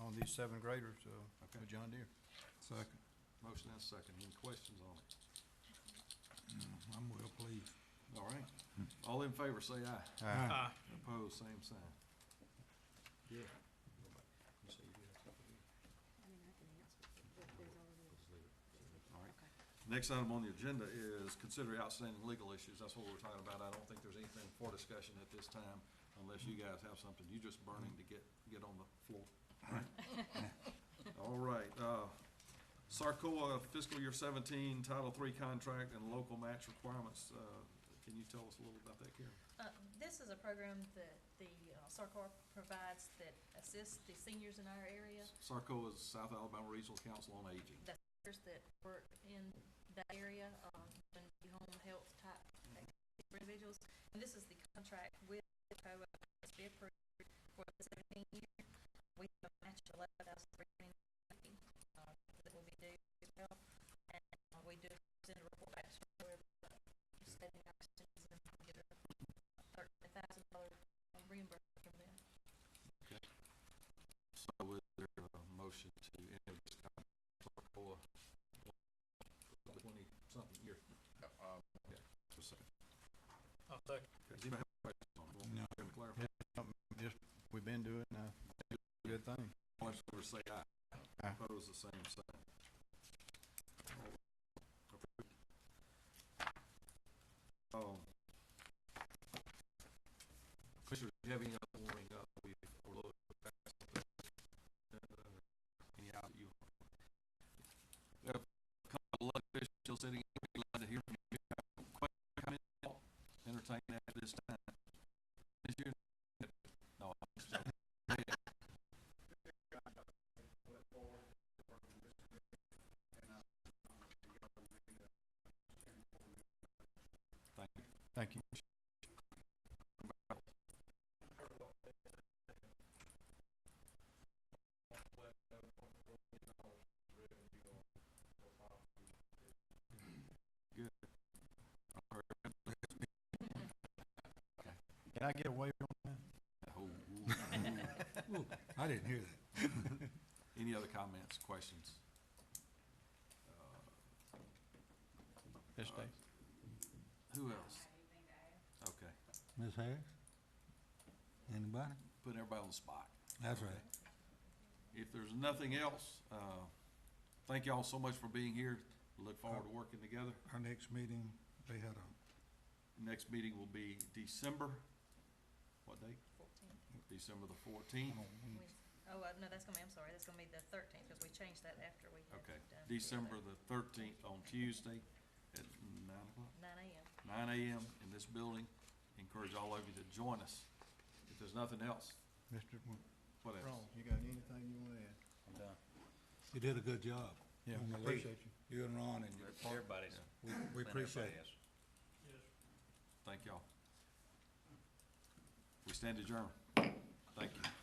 of these seven graders, uh, Okay. with John Deere. Second, Motion and a second. Any questions on it? I'm well pleased. All right. All in favor, say aye. Aye. Opposed, same sign. Yeah. All right. Next item on the agenda is consider outstanding legal issues. That's what we're talking about. I don't think there's anything for discussion at this time unless you guys have something. You're just burning to get, get on the floor. All right, uh, Sarcoa fiscal year seventeen, Title Three contract and local match requirements. Uh, Can you tell us a little about that, Karen? Uh, This is a program that the uh, SARCOR provides that assists the seniors in our area, Sarco is South Alabama Regional Council on Aging. the seniors that work in that area, um, and the home health type activities for individuals. And this is the contract with COA that's been approved for the seventeen year. We have a match of eleven thousand three hundred and fifty, uh, that will be due as well. And uh, we do send a report back to where, uh, setting our students and we get a uh, thirty thousand dollar reimbursement from them. So is there a motion to end this contract with Sarcoa? Twenty-something year. Okay. Just a second. I'll second. Okay, Does anybody have questions on it? No. Can we clarify? Just, we've been doing, uh, good thing. All in favor, say aye. Aye. Opposed, the same sign. Approved. Um, Oh. Commissioners, do you have any other warning uh, we've overlooked? Any out that you? Uh, Couple of elected officials sitting, here, we'd like to hear from you. Question, comment, thought, Entertain that at this time. Is your? No, I'm just joking. Thank you. Thank you. Can I get away from that? Oh, Ooh, I didn't hear that. Any other comments, questions? Yes, Dave. Who else? Okay, Ms. Harris? Anybody? putting everybody on the spot. That's right. If there's nothing else, uh, thank y'all so much for being here. Look forward to working together. Our next meeting, they had a, Next meeting will be December, what date? December the fourteenth. Oh, uh, no, that's gonna be, I'm sorry, that's gonna be the thirteenth, because we changed that after we Oh. had Okay, done. December the thirteenth on Tuesday at nine o'clock. Nine AM. nine AM in this building. Encourage all of you to join us. If there's nothing else, Mr., Wo- what else? You got anything you wanna add? I'm done. you did a good job. Yeah, on the lead. appreciate you. You and Ron and your partner. Everybody's. We- We appreciate it. Thank y'all. We stand adjourned. Thank you.